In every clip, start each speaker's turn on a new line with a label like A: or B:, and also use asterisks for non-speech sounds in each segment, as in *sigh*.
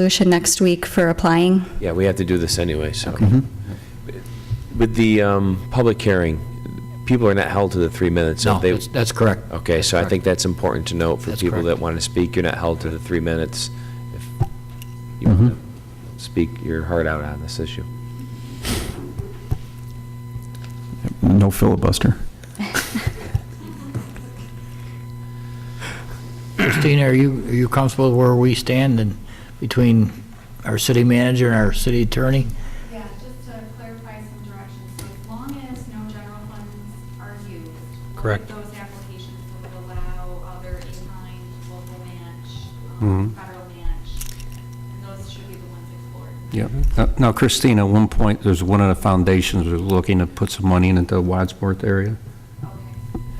A: resolution next week for applying.
B: Yeah, we have to do this anyway, so.
C: Mm-hmm.
B: With the um, public hearing, people are not held to the three minutes. so
C: No,
B: they-
C: that's- that's correct.
B: Okay, so I think that's important to note for
C: That's
B: people that
C: correct.
B: want to speak, you're not held to the three minutes. If you
C: Mm-hmm.
B: want to speak your heart out on this issue.
D: No filibuster.
C: Christina, are you, are you comfortable where we stand and between our city manager and our city attorney?
E: Yeah, just to clarify some directions, so as long as no general funds are used. both of
F: Correct.
E: Those applications will allow other in-kind local match, um,
F: Mhm.
E: federal match, and those should be the ones explored.
F: Yeah. Now Christina, at one point, there's one of the foundations was looking to put some money into the Wadsworth area.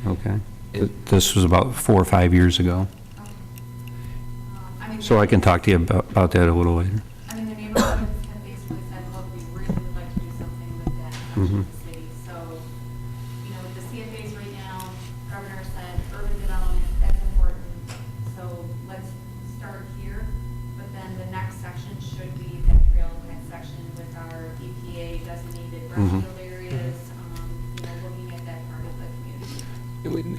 E: Okay.
F: Okay. Th- This was about four or five years ago.
E: okay. Um, I mean,
F: So I can talk to you about about that a little later.
E: I mean, the *coughs* neighborhoods have basically said, look, we really would like to do something with that section of the city. So, you know, with the CFAs right now, governor said urban development, that's important. So let's start here, but then the next section should be that trailhead section with our EPA designated
F: Mhm.
E: brownfield areas, um, you know, looking at that part of the community.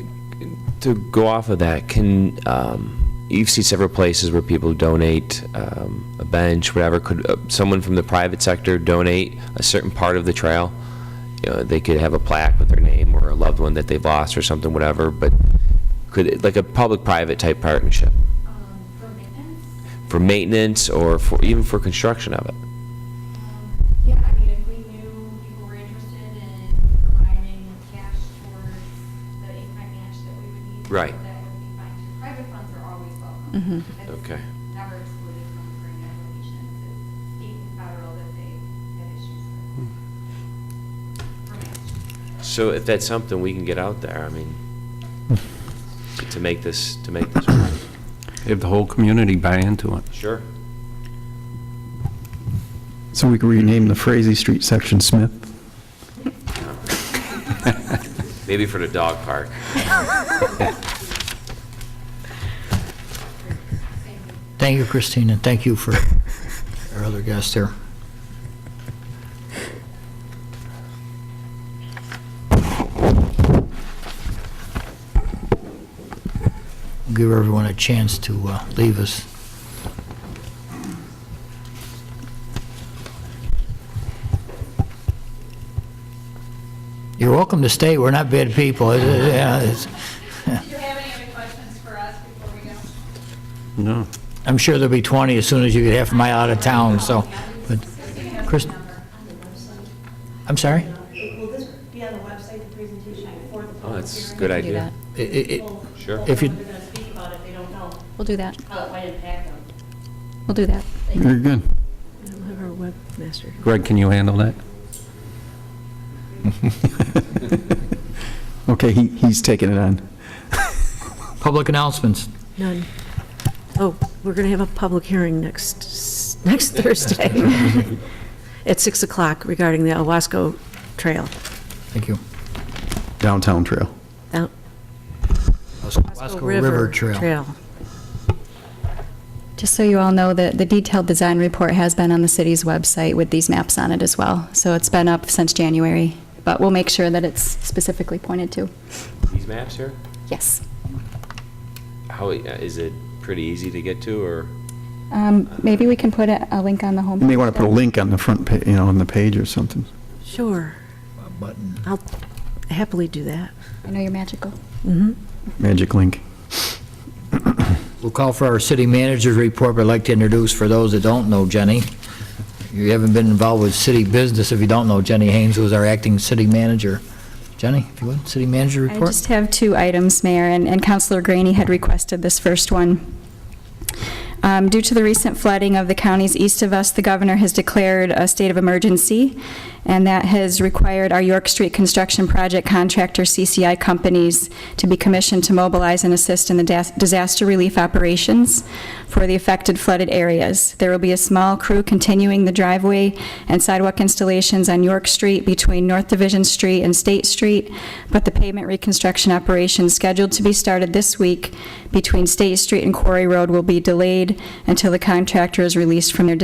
B: To go off of that, can, um, you've seen several places where people donate um, a bench, whatever, could uh, someone from the private sector donate a certain part of the trail? You know, they could have a plaque with their name or a loved one that they've lost or something, whatever, but could, it- like a public-private type partnership
E: Um, For maintenance,
B: for maintenance or for, even for construction of it?
E: Um, Yeah, I mean, if we knew people were interested in providing cash towards the in-kind match that we would need.
B: Right.
E: That would be fine. too. Private funds are always welcome.
A: Mhm.
E: That's
B: Okay.
E: Never excluded from grant applications. It's state and federal that they have issues
B: Hmm.
E: with. For match.
B: So if that's something we can get out there, I mean, to make this, to make this work.
F: If the whole community buy into it.
B: Sure.
D: So we could rename the Frazee Street section Smith.
B: Maybe for the dog park.
E: Thank you.
C: Thank you, Christina. Thank you for our other guests there. Give everyone a chance to uh, leave us. You're welcome to stay. We're not bad people. It- it- yeah, it's-
G: Do you have any other questions for us before we go?
F: No.
C: I'm sure there'll be 20 as soon as you get half a mile out of town, so, but, Chris, I'm sorry?
H: Will this be on the website, the presentation for the
B: Oh,
H: public
B: that's a
H: hearing?
B: good
A: We can do
B: idea.
A: that.
C: I- I- I-
H: People-
B: Sure.
H: people
C: If you-
H: know They're going to speak about it, they don't know
A: We'll do that.
H: how it might impact them.
A: We'll do that.
D: Very good.
I: We'll have our webmaster.
F: Greg, can you handle that?
D: Okay, he, he's taking it on.
C: Public announcements.
I: None. Oh, we're going to have a public hearing next, next Thursday
C: *laughs*
I: at 6 o'clock regarding the Owasco Trail.
C: Thank you.
D: Downtown Trail.
I: Out-
C: Wasco River Trail.
A: Just so you all know, the, the detailed design report has been on the city's website with these maps on it as well. So it's been up since January, but we'll make sure that it's specifically pointed to.
B: These maps here,
A: Yes.
B: how, uh, is it pretty easy to get to, or?
A: Um, maybe we can put a, a link on the home.
D: You may want to put a link on the front, pa- you know, on the page or something.
I: Sure,
C: Button.
I: I'll happily do that.
A: I know you're magical.
I: Mhm.
D: Magic link.
C: We'll call for our city manager's report, but I'd like to introduce, for those that don't know Jenny, you haven't been involved with city business if you don't know Jenny Haynes, who's our acting city manager. Jenny, if you would, city manager
A: I
C: report?
A: just have two items, Mayor, and and Councilor Graney had requested this first one. Um, Due to the recent flooding of the counties east of us, the governor has declared a state of emergency, and that has required our York Street Construction Project contractor, CCI companies, to be commissioned to mobilize and assist in the das- disaster relief operations for the affected flooded areas. There will be a small crew continuing the driveway and sidewalk installations on York Street between North Division Street and State Street, but the pavement reconstruction operation scheduled to be started this week between State Street and Quarry Road will be delayed unpaid until the contractor is released from their